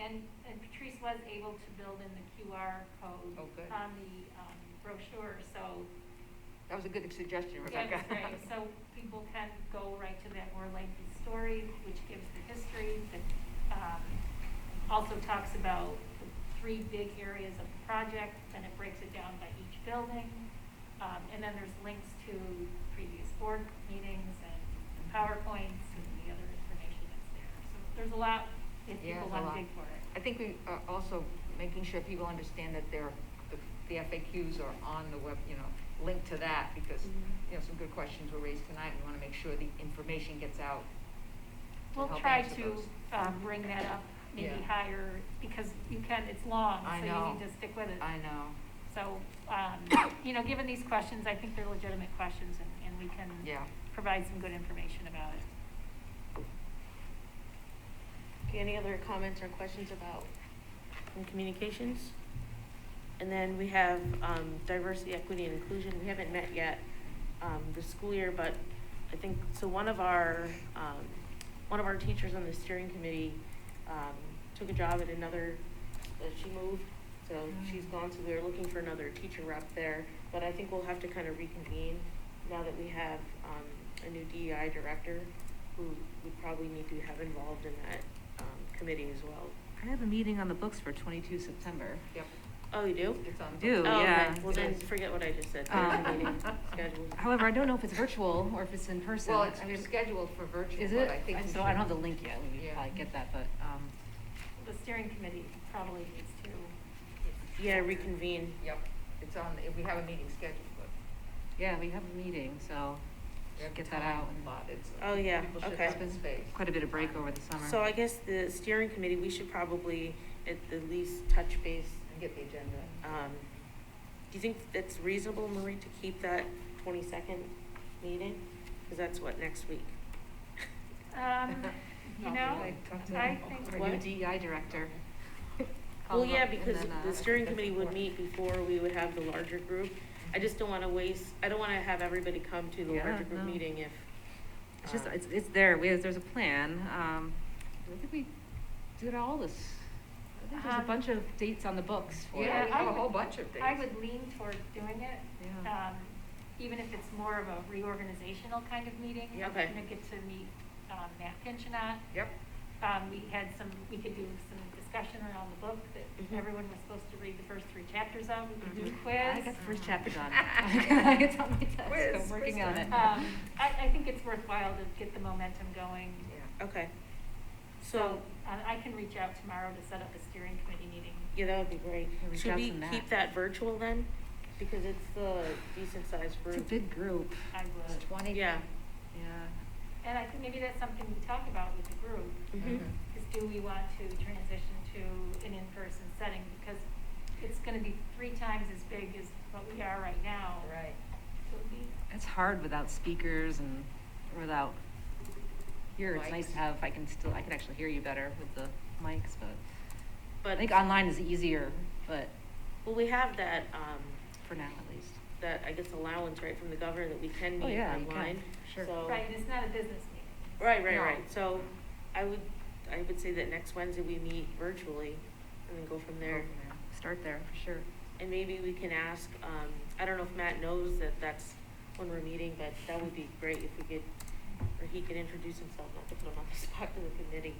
and, and Patrice was able to build in the QR code Oh, good. on the um, brochure, so. That was a good suggestion, yeah, Rebecca. it's great. So people can go right to that more lengthy story, which gives the history, that um, also talks about the three big areas of the project, and it breaks it down by each building. Um, And then there's links to previous board meetings and PowerPoints and the other information that's there. So there's a lot, if Yeah, people it's a want lot. to dig for it. I think we are also making sure people understand that they're, the FAQs are on the web, you know, linked to that because, Mhm. you know, some good questions were raised tonight. We want to make sure the information gets out. to We'll help try answer to those. um, bring that up, maybe Yeah. higher, because you can, it's long, I so know. you need to stick with it. I know, So, um, you know, given these questions, I think they're legitimate questions, and and we can yeah. provide some good information about it. Okay, any other comments or questions about in communications? And then we have um, diversity, equity, and inclusion. We haven't met yet um, this school year, but I think, so one of our, um, one of our teachers on the steering committee um, took a job at another, uh, she moved, so she's gone, so we were looking for another teacher rep there. But I think we'll have to kind of reconvene now that we have um, a new DEI director who we probably need to have involved in that um, committee as well. I have a meeting on the books for twenty-two September. Yep. Oh, you do? It's on. Do, Oh, yeah. okay. Well, then forget what I just said. There's a Um, meeting scheduled. However, I don't know if it's virtual or if it's in person. Well, it's I it's mean, scheduled for virtual, Is but it? I think. I- we So I don't have the should- link yet, we Yeah. could probably get that, but, um, The steering committee probably needs to. Yeah, reconvene. Yep, it's on, we have a meeting scheduled, but yeah, we have a meeting, so we have get that out. time and- allotted, so Oh, yeah, People should okay. have the space. Quite a bit of break over the summer. So I guess the steering committee, we should probably at the least touch base. And get the agenda. Um, do you think it's reasonable, Marie, to keep that twenty-second meeting? Because that's what, next week? Um, You know, I talked to I them. think, Or Our new What? DEI director. Well, Called yeah, up, and because then, uh, the steering committee would before. meet before we would have the larger group. I just don't want to waste, I don't want to have everybody come to the Yeah, larger group no. meeting if. It's just, um, it's, it's there, we, there's a plan, um, Uh-huh. I think we did all this. I think there's a Um, bunch of dates on the books for it. Yeah, Yeah, we I have a would- whole bunch of dates. I would lean toward doing it, Yeah. um, even if it's more of a reorganizational kind of meeting. Yeah, okay. I'm gonna get to meet um, Matt Pinchinat. Yep, Um, we had some, we could do some discussion around the book that Mm-hmm. Mhm. everyone was supposed to read the first three chapters of, we could do a Mhm. quiz. I got the first chapter done. It's on my Quiz, desk, I'm quiz working on it. Um, I, I think it's worthwhile to get the momentum going. yeah. Okay. So uh, So, I, I can reach out tomorrow to set up a steering committee meeting. yeah, that would be great. Yeah, reach Should out we to Matt. keep that virtual then? Because it's the decent sized It's a group. big group. I would. It's twenty. Yeah. Yeah. And I think maybe that's something we talk about with the group, Mhm. Mhm. is do we want to transition to an in-person setting? Because it's gonna be three times as big as what we are right now. Right. So it'd be- It's hard without speakers and without, here, it's nice Mics. to have, I can still, I can actually hear you better with the mics, but I But, think online is easier, but well, we have that, um, for now at least. that, I guess, allowance, right, from the governor that we can Oh, meet yeah, you can. online. Sure. So- Right, and it's not a business meeting. Right, right, No. right. So I would, I would say that next Wednesday we meet virtually and then go from there. Start there, for sure. And maybe we can ask, um, I don't know if Matt knows that that's when we're meeting, but that would be great if we could, or he could introduce himself, not to put him on the spot to the committee.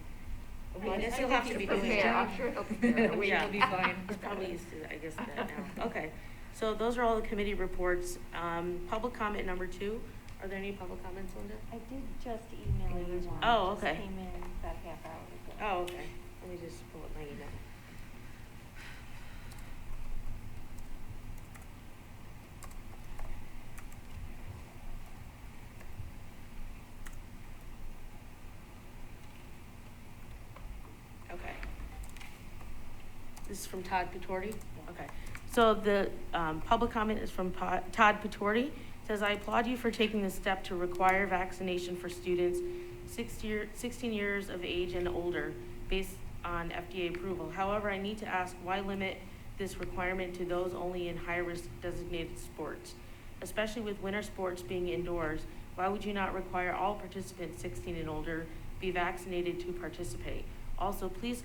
Well, I guess he'll have to be doing Prepare, I'm it. sure he'll prepare. Yeah. We will be fine. He's probably used to, I guess, that now. Okay. So those are all the committee reports. Um, public comment number two. Are there any public comments, Linda? I did just email you one. It Oh, just okay. Came in about half hour ago. Oh, okay. Let me just pull up my email. Okay. This is from Todd Patorti? Okay. So the um, public comment is from Po- Todd Patorti. Says, "I applaud you for taking this step to require vaccination for students 60 year- 16 years of age and older based on FDA approval. However, I need to ask, why limit this requirement to those only in high-risk designated sports? Especially with winter sports being indoors, why would you not require all participants 16 and older be vaccinated to participate? Also, please